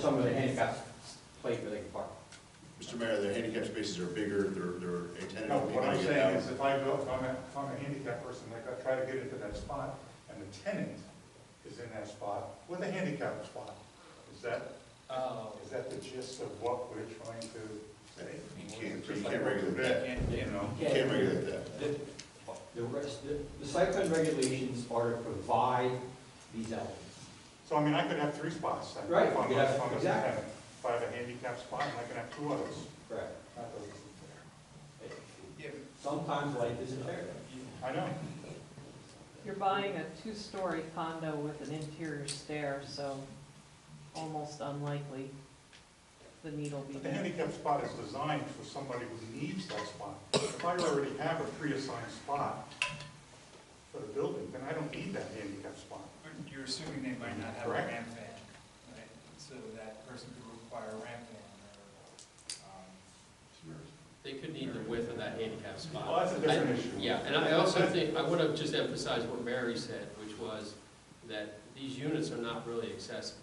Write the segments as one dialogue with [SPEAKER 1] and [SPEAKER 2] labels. [SPEAKER 1] some of the handicap place where they can park.
[SPEAKER 2] Mr. Mayor, the handicap spaces are bigger, they're, they're intended
[SPEAKER 3] No,
[SPEAKER 2] to be
[SPEAKER 3] what I'm
[SPEAKER 2] like that.
[SPEAKER 3] saying is if I go, if I'm a, if I'm a handicap person, like I try to get into that spot and the tenant is in that spot with a handicap spot, is that,
[SPEAKER 4] Oh,
[SPEAKER 3] is that the gist of what we're trying to say?
[SPEAKER 2] You can't, you can't regulate that,
[SPEAKER 4] yeah,
[SPEAKER 3] You
[SPEAKER 4] yeah.
[SPEAKER 3] know,
[SPEAKER 2] you can't regulate that.
[SPEAKER 1] The, the rest, the, the site plan regulations are to provide these elements.
[SPEAKER 3] so I mean, I could have three spots. then,
[SPEAKER 1] Right,
[SPEAKER 3] if I'm a-
[SPEAKER 1] yeah,
[SPEAKER 3] if I'm a
[SPEAKER 1] exactly.
[SPEAKER 3] tenant. If I have a handicap spot, and I can have two others.
[SPEAKER 1] Correct.
[SPEAKER 3] Not those two
[SPEAKER 4] Yeah,
[SPEAKER 1] Sometimes life isn't fair.
[SPEAKER 3] there. I know,
[SPEAKER 5] You're buying a two-story condo with an interior stair, so almost unlikely the need will be
[SPEAKER 3] but the
[SPEAKER 5] there.
[SPEAKER 3] handicap spot is designed for somebody who needs that spot. If I already have a pre-assigned spot for the building, then I don't need that handicap spot.
[SPEAKER 4] but You're assuming they might not have a
[SPEAKER 3] Correct.
[SPEAKER 4] ramp van, right? So that person could require a ramp van or, um,
[SPEAKER 6] They could need the width of that handicap spot.
[SPEAKER 3] Well, that's a different issue.
[SPEAKER 6] Yeah, and I also think, I want to just emphasize what Mary said, which was that these units are not really accessible.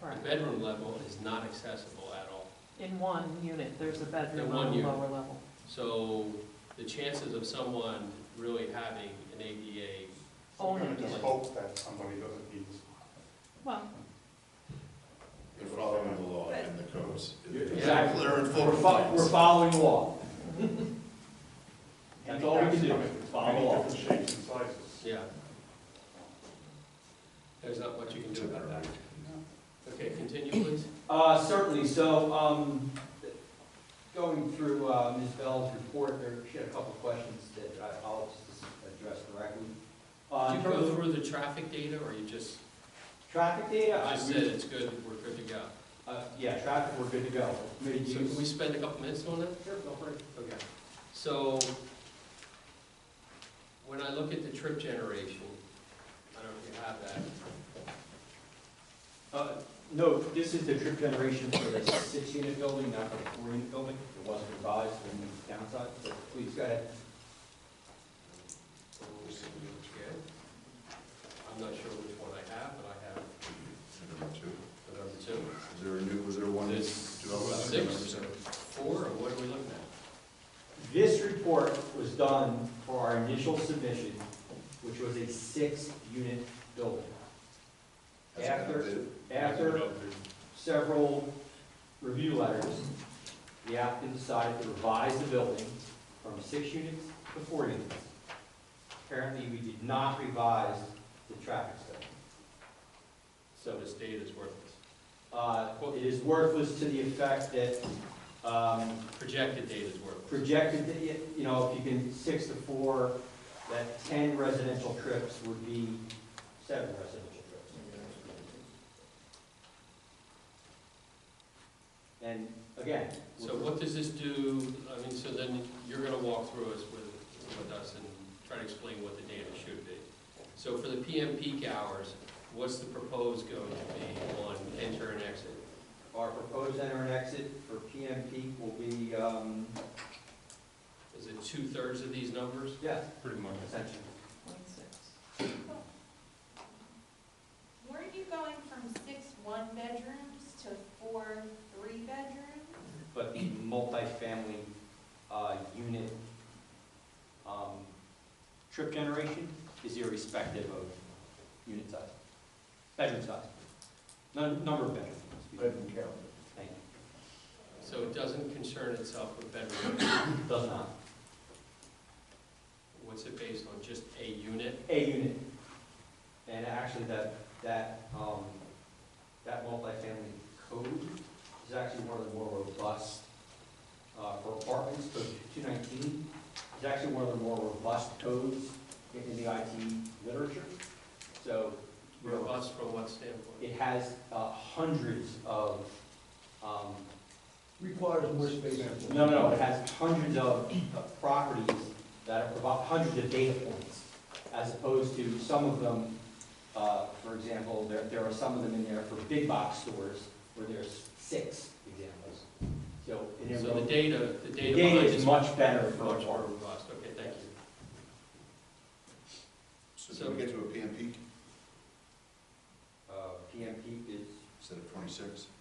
[SPEAKER 6] The
[SPEAKER 5] Correct.
[SPEAKER 6] bedroom level is not accessible at all.
[SPEAKER 5] In one unit, there's a
[SPEAKER 6] In
[SPEAKER 5] bedroom
[SPEAKER 6] one
[SPEAKER 5] on the
[SPEAKER 6] unit.
[SPEAKER 5] lower level.
[SPEAKER 6] So the chances of someone really having an ADA,
[SPEAKER 3] We're gonna
[SPEAKER 5] Only,
[SPEAKER 3] just hope that somebody doesn't need this.
[SPEAKER 5] well,
[SPEAKER 2] They're following the law and the codes.
[SPEAKER 1] Exactly.
[SPEAKER 2] They're in full
[SPEAKER 1] We're fo- we're
[SPEAKER 2] compliance.
[SPEAKER 1] following law. That's all we can do,
[SPEAKER 3] Handicaps come in
[SPEAKER 1] follow along.
[SPEAKER 3] Many different shapes and sizes.
[SPEAKER 6] yeah. There's not much you can do about that. Okay, continue please.
[SPEAKER 1] Uh, certainly, so, um, going through, uh, Ms. Bell's report, there, she had a couple of questions that I- I'll just address directly. Uh,
[SPEAKER 6] Did
[SPEAKER 1] in
[SPEAKER 6] you
[SPEAKER 1] terms
[SPEAKER 6] go
[SPEAKER 1] of
[SPEAKER 6] through the traffic data or you just,
[SPEAKER 1] traffic data, I,
[SPEAKER 6] just said
[SPEAKER 1] we-
[SPEAKER 6] it's good, we're good to go?
[SPEAKER 1] uh, yeah, traffic, we're good to go. Committee
[SPEAKER 6] So
[SPEAKER 1] use-
[SPEAKER 6] can we spend a couple minutes on that?
[SPEAKER 1] Sure, go for it.
[SPEAKER 6] Okay, so when I look at the trip generation, I don't know if you have that,
[SPEAKER 1] Uh, No, this is the trip generation for the six-unit building, not for the four-unit building. It wasn't revised when we downsized, but please go ahead.
[SPEAKER 6] Okay. I'm not sure which one I have, but I have
[SPEAKER 2] Number two.
[SPEAKER 6] the number two.
[SPEAKER 2] Is there a new, was there one?
[SPEAKER 6] There's
[SPEAKER 2] development?
[SPEAKER 6] six, four, or what are we looking at?
[SPEAKER 1] This report was done for our initial submission, which was a six-unit building.
[SPEAKER 2] That's
[SPEAKER 1] After,
[SPEAKER 2] adopted.
[SPEAKER 1] after several review letters, the applicant decided to revise the building from six units to four units. Apparently, we did not revise the traffic study.
[SPEAKER 6] So
[SPEAKER 1] So
[SPEAKER 6] this data is worthless.
[SPEAKER 1] uh, it is worthless to the effect that um,
[SPEAKER 6] Projected data is worthless.
[SPEAKER 1] projected, that, you know, if you can six to four, that 10 residential trips would be seven residential trips. And again. with-
[SPEAKER 6] So what does this do, I mean, so then you're gonna walk through us with, with us and try to explain what the data should be. So for the PM peak hours, what's the proposed going to be on enter and exit?
[SPEAKER 1] Our proposed enter and exit for PM peak will be, um,
[SPEAKER 6] Is it two-thirds of these numbers?
[SPEAKER 1] yeah,
[SPEAKER 6] Pretty much.
[SPEAKER 1] essentially.
[SPEAKER 5] point six.
[SPEAKER 7] Weren't you going from six one-bedrooms to four three-bedrooms?
[SPEAKER 1] But the multifamily uh, unit um, trip generation is irrespective of unit size, bedroom size, Nun- number of bedrooms. excuse me.
[SPEAKER 3] count.
[SPEAKER 1] Thank
[SPEAKER 6] So it doesn't concern itself with bedroom,
[SPEAKER 1] you. Does not.
[SPEAKER 6] what's it based on, just a unit?
[SPEAKER 1] A unit. And actually, that, that, um, that multifamily code is actually one of the more robust, uh, for apartments, code two nineteen, is actually one of the more robust codes in in the IT literature. So, you know,
[SPEAKER 6] Robust from what standpoint?
[SPEAKER 1] it has, uh, hundreds of, um,
[SPEAKER 8] Requires more space.
[SPEAKER 1] no, no, it has hundreds of of properties that are, provi- hundreds of data points, as opposed to some of them, uh, for example, there, there are some of them in there for big box stores, where there's six examples. So, in a
[SPEAKER 6] So the
[SPEAKER 1] row-
[SPEAKER 6] data, the
[SPEAKER 1] the
[SPEAKER 6] data
[SPEAKER 1] data
[SPEAKER 6] behind
[SPEAKER 1] is
[SPEAKER 6] this much
[SPEAKER 1] much better for
[SPEAKER 6] more
[SPEAKER 1] a farm.
[SPEAKER 6] robust, okay, thank you.
[SPEAKER 2] So did we get to a PM peak
[SPEAKER 1] Uh, PMP is
[SPEAKER 2] instead of twenty-six?